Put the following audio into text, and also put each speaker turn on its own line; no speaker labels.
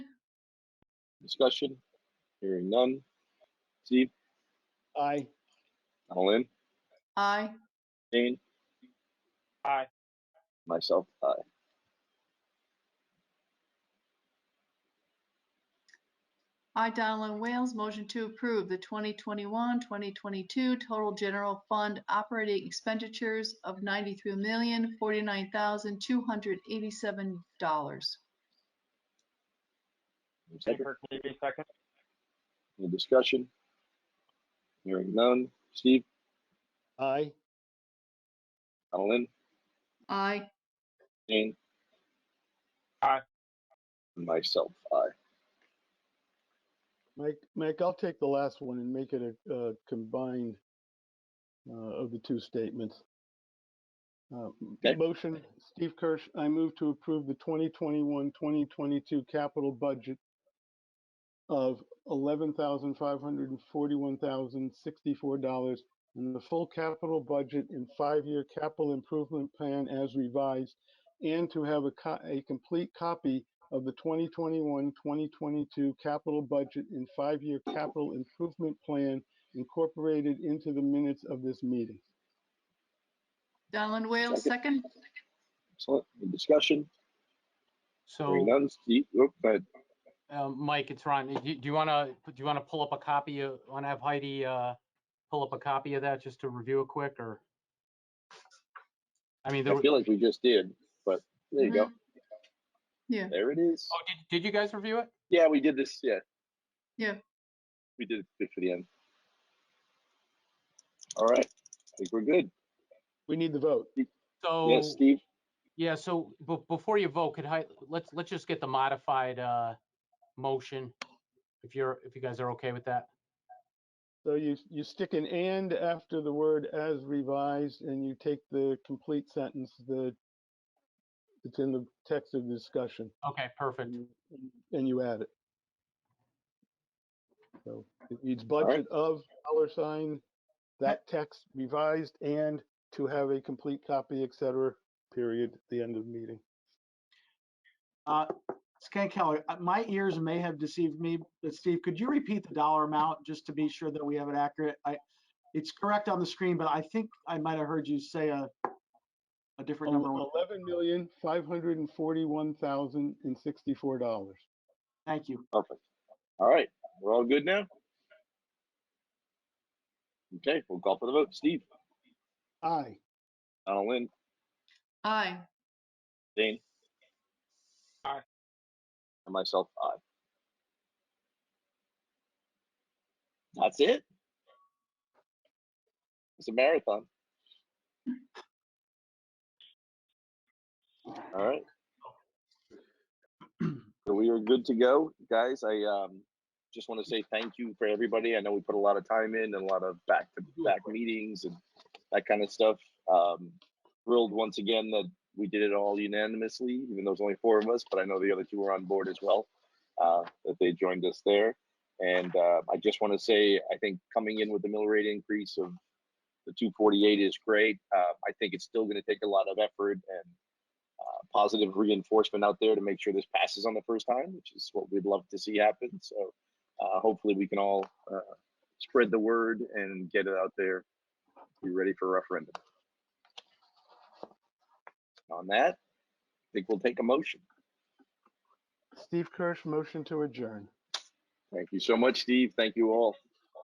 Discussion? Hearing none. Steve,
Aye.
Alan,
Aye.
Jane?
Aye.
Myself, aye.
I, Donald N. Wales, motion to approve the 2021, 2022 total general fund operating expenditures of $93,049,287.
Second,
Kirk Navy, second.
any discussion? Hearing none. Steve,
Aye.
Alan,
Aye.
Jane?
Aye.
Myself, aye.
Mike, Mike, I'll take the last one and make it a, a combined uh, of the two statements. Uh, m-
Okay.
Motion, Steve Kirsch, I move to approve the 2021, 2022 capital budget of $11,541,064 and the full capital budget and five-year capital improvement plan as revised, and to have a, co- a complete copy of the 2021-2022 capital budget and five-year capital improvement plan incorporated into the minutes of this meeting.
Donald N. Wales, second.
Excellent. Any discussion? Hearing
So,
none. Steve, oh, go ahead.
um, Mike, it's Ron. Do you- do you want to, do you want to pull up a copy of, want to have Heidi uh, pull up a copy of that just to review it quick or? I mean, there
I
were-
feel like we just did, but there you go.
Mhm. Yeah.
There it is.
oh, did, did you guys review it?
Yeah, we did this, yeah.
Yeah.
We did it good for the end. All right, I think we're good.
We need the vote.
So,
Yes, Steve?
yeah, so be- before you vote, could Heidi, let's, let's just get the modified uh, motion. If you're, if you guys are okay with that.
So you, you stick an and after the word as revised, and you take the complete sentence that it's in the text of the discussion,
Okay, perfect.
and you- and you add it. So it reads budget of dollar sign, that text revised, and to have a complete copy, et cetera, period, the end of the meeting.
Scan Keller, uh, my ears may have deceived me, but Steve, could you repeat the dollar amount just to be sure that we have it accurate? I, it's correct on the screen, but I think I might have heard you say a, a different number. when-
Eleven million, five hundred and forty-one thousand and sixty-four dollars.
Thank you.
Perfect. All right, we're all good now? Okay, we'll call for the vote. Steve,
Aye.
Donaldin,
Aye.
Dane?
Aye.
And myself, aye. That's it? It's a marathon. All right. So we are good to go, guys. I um just want to say thank you for everybody. I know we put a lot of time in and a lot of back to back meetings and that kind of stuff. Um, thrilled once again that we did it all unanimously, even though it's only four of us, but I know the other two were on board as well, uh, that they joined us there. And uh, I just want to say, I think coming in with the mill rate increase of the 248 is great. Uh, I think it's still going to take a lot of effort and uh, positive reinforcement out there to make sure this passes on the first time, which is what we'd love to see happen. So uh, hopefully we can all uh, spread the word and get it out there. Be ready for referendum. On that, I think we'll take a motion.
Steve Kirsch, motion to adjourn.
Thank you so much, Steve. Thank you all.